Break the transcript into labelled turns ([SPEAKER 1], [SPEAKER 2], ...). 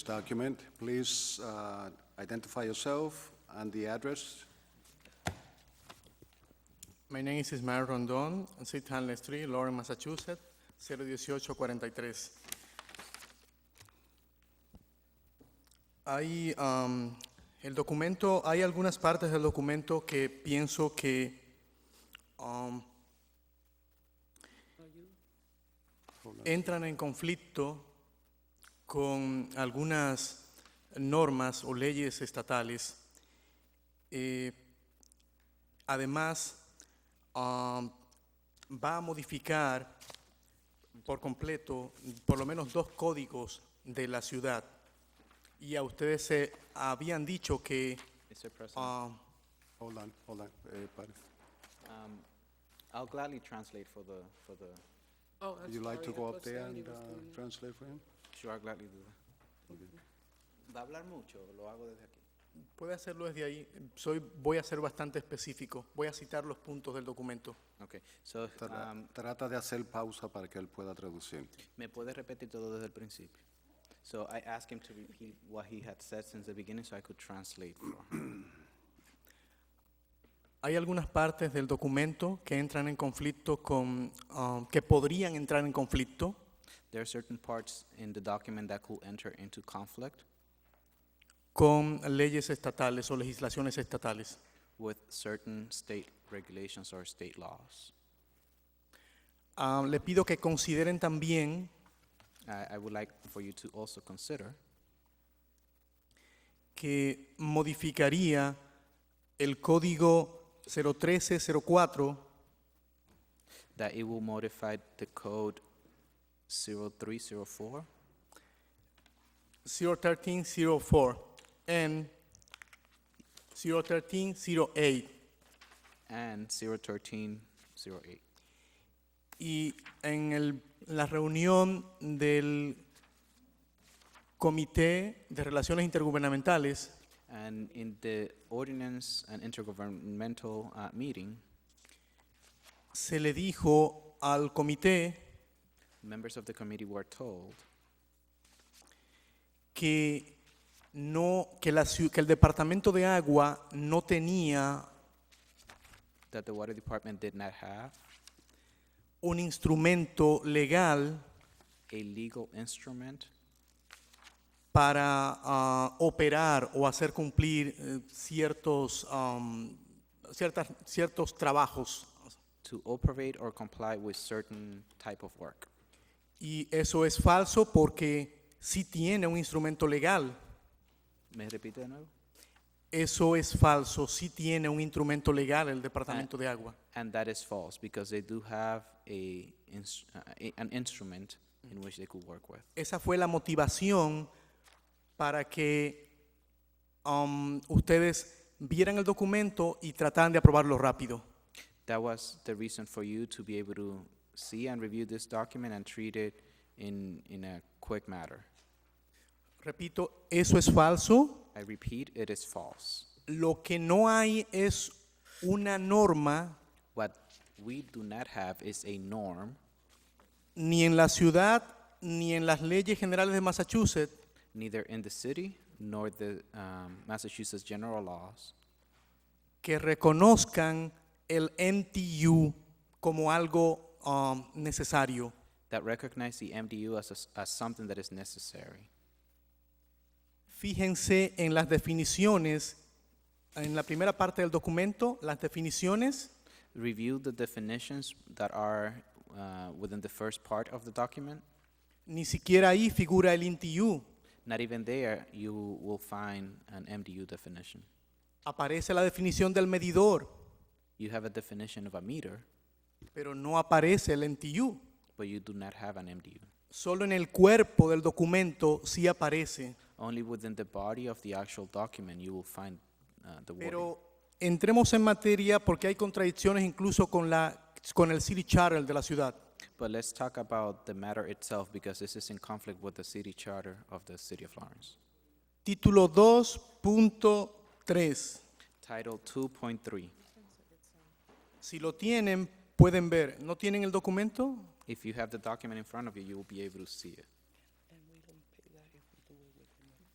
[SPEAKER 1] document. Please uh, identify yourself and the address.
[SPEAKER 2] My name is Ismael Rondon, 6 Hanley Street, Lawrence, Massachusetts, 01843. Hay, um, el documento, hay algunas partes del documento que pienso que um, entran en conflicto con algunas normas o leyes estatales. Eh, además, um, va a modificar por completo por lo menos dos códigos de la ciudad. Y a ustedes se habían dicho que
[SPEAKER 3] Mr. President,
[SPEAKER 2] um,
[SPEAKER 1] Hold on, hold on, eh, everybody.
[SPEAKER 3] um, I'll gladly translate for the, for the,
[SPEAKER 4] Oh, I'm
[SPEAKER 1] Would you like to
[SPEAKER 4] sorry, I
[SPEAKER 1] go up
[SPEAKER 4] thought
[SPEAKER 1] there
[SPEAKER 4] Sandy
[SPEAKER 1] and
[SPEAKER 4] was
[SPEAKER 1] uh,
[SPEAKER 4] doing it.
[SPEAKER 1] translate for him?
[SPEAKER 3] sure, I'll gladly do that. ¿Va a hablar mucho? Lo hago desde aquí.
[SPEAKER 2] puede hacerlo desde ahí. Soy, voy a ser bastante específico. Voy a citar los puntos del documento.
[SPEAKER 3] Okay, so,
[SPEAKER 1] Tra-
[SPEAKER 3] um,
[SPEAKER 1] Trata de hacer pausa para que él pueda traducir.
[SPEAKER 3] ¿me puede repetir todo desde el principio? So I asked him to repeat what he had said since the beginning so I could translate for him.
[SPEAKER 2] Hay algunas partes del documento que entran en conflicto con, um, que podrían entrar en conflicto
[SPEAKER 3] There are certain parts in the document that could enter into conflict
[SPEAKER 2] con leyes estatales o legislaciones estatales.
[SPEAKER 3] with certain state regulations or state laws.
[SPEAKER 2] Ah, le pido que consideren también
[SPEAKER 3] I, I would like for you to also consider
[SPEAKER 2] que modificaría el código 01304
[SPEAKER 3] that it will modify the code 0304
[SPEAKER 2] 01304 and 01308
[SPEAKER 3] and 01308.
[SPEAKER 2] y en el- la reunión del Comité de Relaciones Intergubernamentales
[SPEAKER 3] And in the ordinance and intergovernmental uh, meeting,
[SPEAKER 2] se le dijo al comité
[SPEAKER 3] members of the committee were told
[SPEAKER 2] que no que la ciu- que el departamento de agua no tenía
[SPEAKER 3] that the water department did not have
[SPEAKER 2] un instrumento legal
[SPEAKER 3] a legal instrument
[SPEAKER 2] para ah, operar o hacer cumplir eh, ciertos am, ciertas- ciertos trabajos
[SPEAKER 3] to operate or comply with certain type of work.
[SPEAKER 2] y eso es falso porque sí tiene un instrumento legal
[SPEAKER 3] ¿Me repite de nuevo?
[SPEAKER 2] eso es falso sí tiene un instrumento legal el departamento de agua
[SPEAKER 3] And that is false because they do have a, ins- uh, a- an instrument in which they could work with.
[SPEAKER 2] esa fue la motivación para que um, ustedes vieran el documento y trataran de aprobarlo rápido.
[SPEAKER 3] That was the reason for you to be able to see and review this document and treat it in, in a quick matter.
[SPEAKER 2] Repito, eso es falso.
[SPEAKER 3] I repeat, it is false.
[SPEAKER 2] Lo que no hay es una norma
[SPEAKER 3] What we do not have is a norm,
[SPEAKER 2] ni en la ciudad ni en las leyes generales de Massachusetts
[SPEAKER 3] neither in the city nor the um, Massachusetts general laws,
[SPEAKER 2] que reconozcan el MTU como algo um, necesario.
[SPEAKER 3] that recognize the MDU as, a s as something that is necessary.
[SPEAKER 2] Fíjense en las definiciones, en la primera parte del documento, las definiciones
[SPEAKER 3] Review the definitions that are uh, within the first part of the document.
[SPEAKER 2] Ni siquiera ahí figura el INTIU.
[SPEAKER 3] Not even there you will find an MDU definition.
[SPEAKER 2] Aparece la definición del medidor,
[SPEAKER 3] You have a definition of a meter,
[SPEAKER 2] pero no aparece el INTIU.
[SPEAKER 3] but you do not have an MDU.
[SPEAKER 2] Solo en el cuerpo del documento sí aparece.
[SPEAKER 3] Only within the body of the actual document you will find uh, the wording.
[SPEAKER 2] Pero entremos en materia porque hay contradicciones incluso con, la, con el City Charter de la ciudad.
[SPEAKER 3] But let's talk about the matter itself because this is in conflict with the city charter of the city of Lawrence.
[SPEAKER 2] Título 2.3.
[SPEAKER 3] Title 2.3.
[SPEAKER 2] Si lo tienen, pueden ver. ¿No tienen el documento?
[SPEAKER 3] If you have the document in front of you, you will be able to see it.